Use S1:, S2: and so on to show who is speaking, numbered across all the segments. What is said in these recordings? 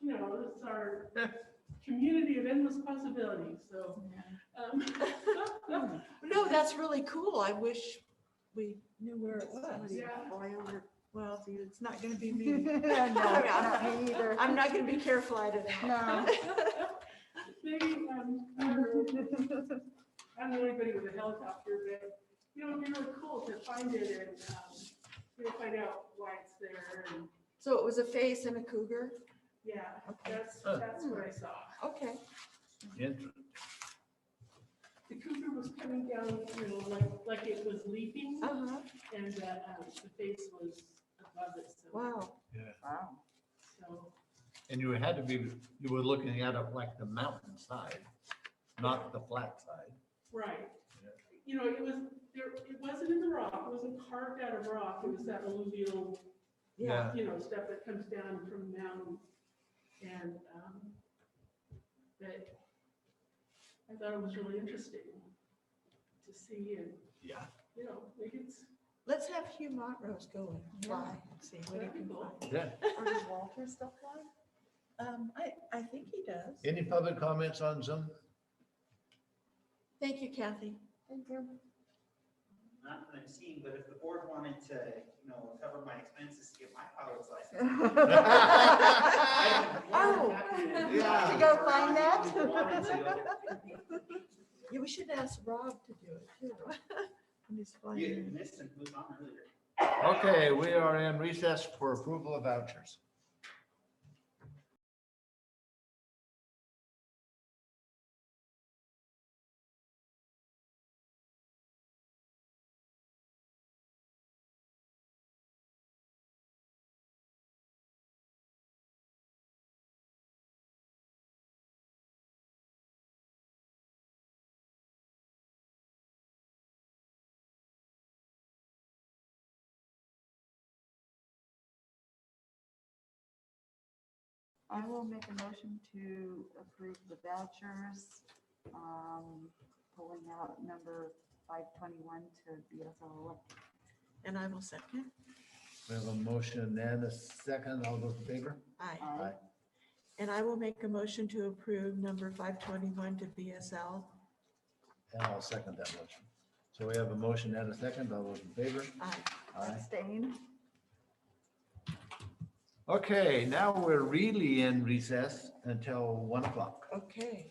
S1: you know, it's our community of endless possibilities, so. um,
S2: No, that's really cool. I wish we knew where it was.
S1: Yeah.
S2: Well, it's not gonna be me.
S3: No, not me either.
S2: I'm not gonna be careful at it.
S3: No.
S1: Maybe, um, I don't know, I don't know anybody with a helicopter, but, you know, it'd be really cool to find it and, um, you know, find out why it's there and,
S2: So it was a face and a cougar?
S1: yeah,
S2: Okay.
S1: that's, that's what I saw.
S2: Okay.
S4: Interesting.
S1: The cougar was coming down, you know, like, like it was leaping
S2: Uh-huh.
S1: and the, um, the face was above it, so.
S2: Wow.
S3: Wow.
S1: So,
S4: And you had to be, you were looking at it like the mountain side, not the flat side.
S1: right.
S4: Yeah.
S1: You know, it was, there, it wasn't in the rock, it wasn't carved out of rock, it was that alluvial
S2: Yeah.
S1: you know, stuff that comes down from the mountain. And, um, but I thought it was really interesting to see and,
S4: Yeah.
S1: you know, like it's,
S2: Let's have Hugh Montrose go and fly and see what he
S1: That'd be
S2: can
S1: cool.
S2: find.
S4: Yeah.
S3: Or does Walter still fly?
S2: Um, I, I think he does.
S4: Any public comments on Zoom?
S2: Thank you, Kathy.
S3: Thank you.
S5: Not that I'm seeing, but if the board wanted to, you know, cover my expenses to get my pilot's license.
S3: Oh,
S5: I'd be more than happy do
S3: yeah.
S5: that.
S3: To go find that?
S5: If you wanted to.
S2: Yeah, we should ask Rob to do it too. When he's flying
S5: You
S2: in.
S5: missed and moved on earlier.
S4: Okay, we are in recess for approval of vouchers.
S3: I will make a motion to approve the vouchers, um, pulling out number five twenty-one to BSL.
S2: And I will second.
S4: We have a motion and a second. All those in favor?
S2: Aye.
S3: Aye.
S2: And I will make a motion to approve number 521 to BSL.
S4: And I'll second that motion. So we have a motion and a second. All those in favor?
S2: Aye.
S4: Aye.
S3: Abstain.
S4: Okay, now we're really in recess until one o'clock.
S2: Okay.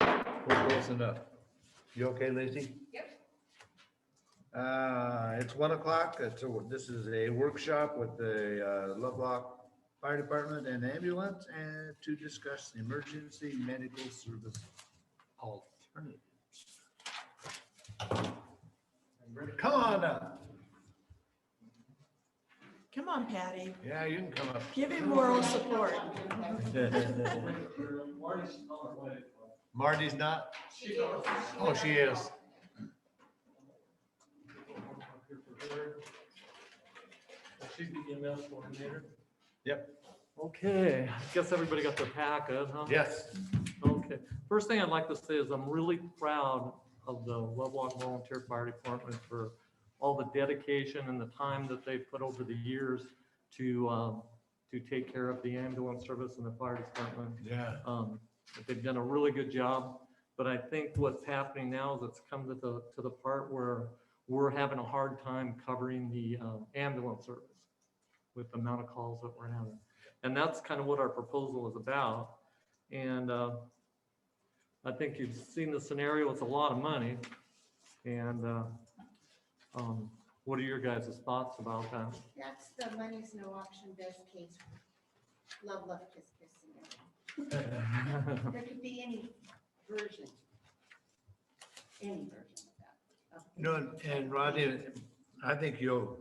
S4: We're close enough. You okay, Lacy? Yep. Uh, it's one o'clock. It's, a- this is a workshop with the uh, Lovelock Fire Department and ambulance and to discuss emergency medical service alternatives. Come on up.
S2: Come on, Patty.
S4: Yeah, you can come up.
S2: Give him moral support.
S4: Marty's not? Oh, she is.
S6: She's the EMS coordinator.
S4: Yep.
S6: Okay, guess everybody got their packet, huh?
S4: Yes.
S6: Okay, first thing I'd like to say is I'm really proud of the Lovelock Volunteer Fire Department for all the dedication and the time that they've put over the years to, um, to take care of the ambulance service and the fire department.
S4: Yeah.
S6: Um, but They've done a really good job, but I think what's happening now is it's come to the, to the part where we're having a hard time covering the um, ambulance service with the amount of calls that we're having. And that's kind of what our proposal is about. And uh, I think you've seen the scenario, it's a lot of money. And uh, um, what are your guys' thoughts about that?
S7: That's the money's no option best case. Love, love, kiss, kiss. scenario. There could be any version. Any version of that.
S4: No, and- and Rodney, I think you'll,